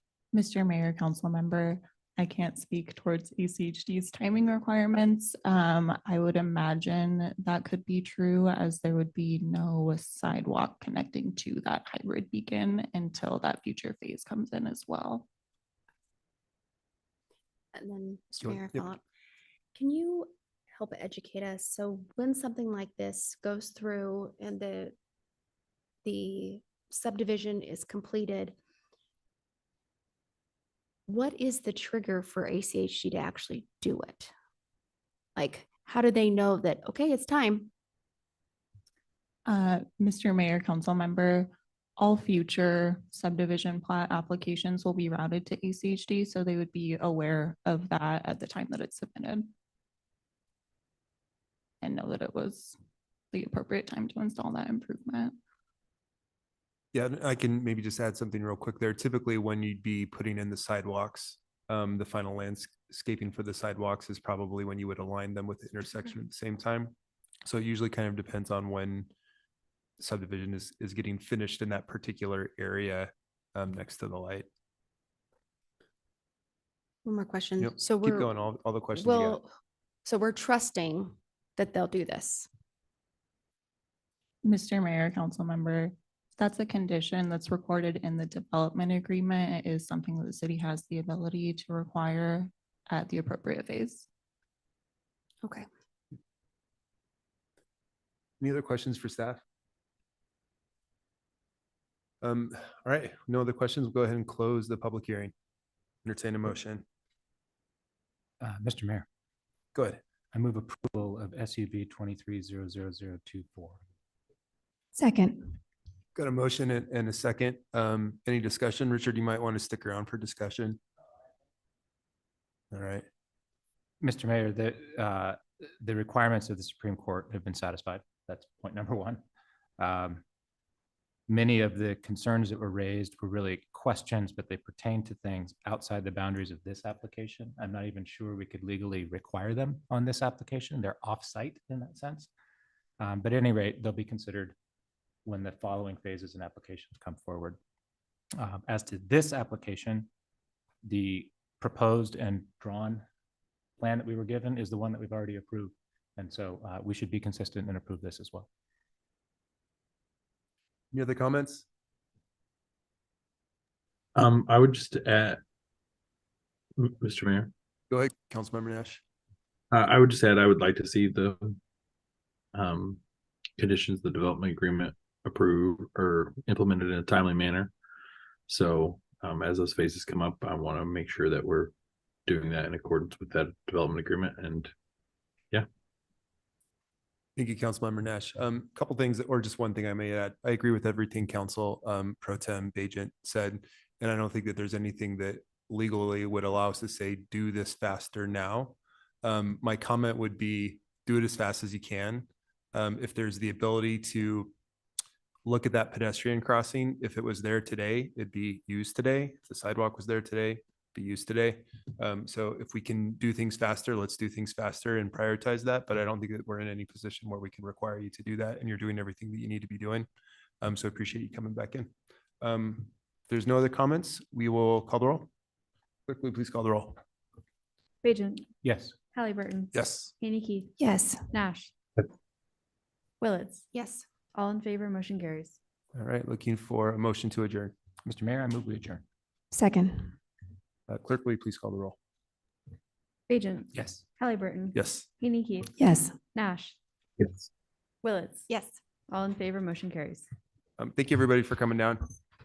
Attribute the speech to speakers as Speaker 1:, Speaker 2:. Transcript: Speaker 1: Mr. Mayor, council member, I can't speak towards E ACHD's timing requirements. Um, I would imagine that could be true as there would be no sidewalk connecting to that hybrid beacon until that future phase comes in as well.
Speaker 2: And then, Mr.
Speaker 3: Go ahead.
Speaker 2: Mayor,
Speaker 3: Yep.
Speaker 2: follow up. Can you help educate us? So when something like this goes through and the, the subdivision is completed, what is the trigger for ACHD to actually do it? Like, how do they know that, okay, it's time?
Speaker 1: Uh, Mr. Mayor, council member, all future subdivision plat applications will be routed to ACHD, so they would be aware of that at the time that it's submitted. And know that it was the appropriate time to install that improvement.
Speaker 3: Yeah, and I can maybe just add something real quick there. Typically, when you'd be putting in the sidewalks, um, the final landscaping for the sidewalks is probably when you would align them with the intersection at the same time. So it usually kind of depends on when subdivision is, is getting finished in that particular area, um, next to the light.
Speaker 2: One more question.
Speaker 3: Yep,
Speaker 2: So
Speaker 3: Keep
Speaker 2: we're,
Speaker 3: going, all, all the questions you got.
Speaker 2: well, so we're trusting that they'll do this.
Speaker 1: Mr. Mayor, council member, that's a condition that's recorded in the development agreement. It is something that the city has the ability to require at the appropriate phase.
Speaker 2: Okay.
Speaker 3: Any other questions for staff? Um, all right, no other questions. We'll go ahead and close the public hearing. Entertain a motion.
Speaker 4: Uh, Mr. Mayor,
Speaker 3: Go ahead.
Speaker 4: I move approval of SUV twenty-three zero zero zero two four.
Speaker 2: Second.
Speaker 3: Got a motion and, and a second. Um, any discussion? Richard, you might want to stick around for discussion. All right,
Speaker 4: Mr. Mayor, the, uh, the requirements of the Supreme Court have been satisfied. That's point number one. Um, Many of the concerns that were raised were really questions, but they pertain to things outside the boundaries of this application. I'm not even sure we could legally require them on this application. They're off-site in that sense. Um, But at any rate, they'll be considered when the following phases and applications come forward. Um, As to this application, the proposed and drawn plan that we were given is the one that we've already approved. And so uh, we should be consistent and approve this as well.
Speaker 3: any other comments?
Speaker 5: Um, I would just add, M- Mr. Mayor,
Speaker 3: Go ahead, Councilmember Nash.
Speaker 5: uh, I would just add, I would like to see the um, conditions of the development agreement approved or implemented in a timely manner. So, um, as those phases come up, I want to make sure that we're doing that in accordance with that development agreement and
Speaker 3: Thank you, Councilmember Nash. Um, a couple things, or just one thing I may add. I agree with everything Council, um, Pro Tem Bajent said. And I don't think that there's anything that legally would allow us to say, do this faster now. Um, my comment would be, do it as fast as you can. Um, if there's the ability to look at that pedestrian crossing, if it was there today, it'd be used today. If the sidewalk was there today, be used today. Um, so if we can do things faster, let's do things faster and prioritize that. But I don't think that we're in any position where we can require you to do that and you're doing everything that you need to be doing. Um, so I appreciate you coming back in. Um, if there's no other comments, we will call the roll. Clerk, will you please call the roll?
Speaker 6: Bajent,
Speaker 4: Yes.
Speaker 6: Halliburton.
Speaker 3: Yes.
Speaker 6: Haney Keith,
Speaker 2: Yes.
Speaker 6: Nash.
Speaker 5: Yep.
Speaker 6: Willetts,
Speaker 2: Yes.
Speaker 6: all in favor, motion carries.
Speaker 3: All right, looking for a motion to adjourn.
Speaker 4: Mr. Mayor, I move we adjourn.
Speaker 2: Second.
Speaker 3: Uh, clerk, will you please call the roll?
Speaker 6: Bajent,
Speaker 4: Yes.
Speaker 6: Halliburton.
Speaker 3: Yes.
Speaker 6: Haney Keith,
Speaker 2: Yes.
Speaker 6: Nash,
Speaker 5: Yes.
Speaker 6: Willetts.
Speaker 2: Yes.
Speaker 6: All in favor, motion carries.
Speaker 3: Um, thank you, everybody, for coming down.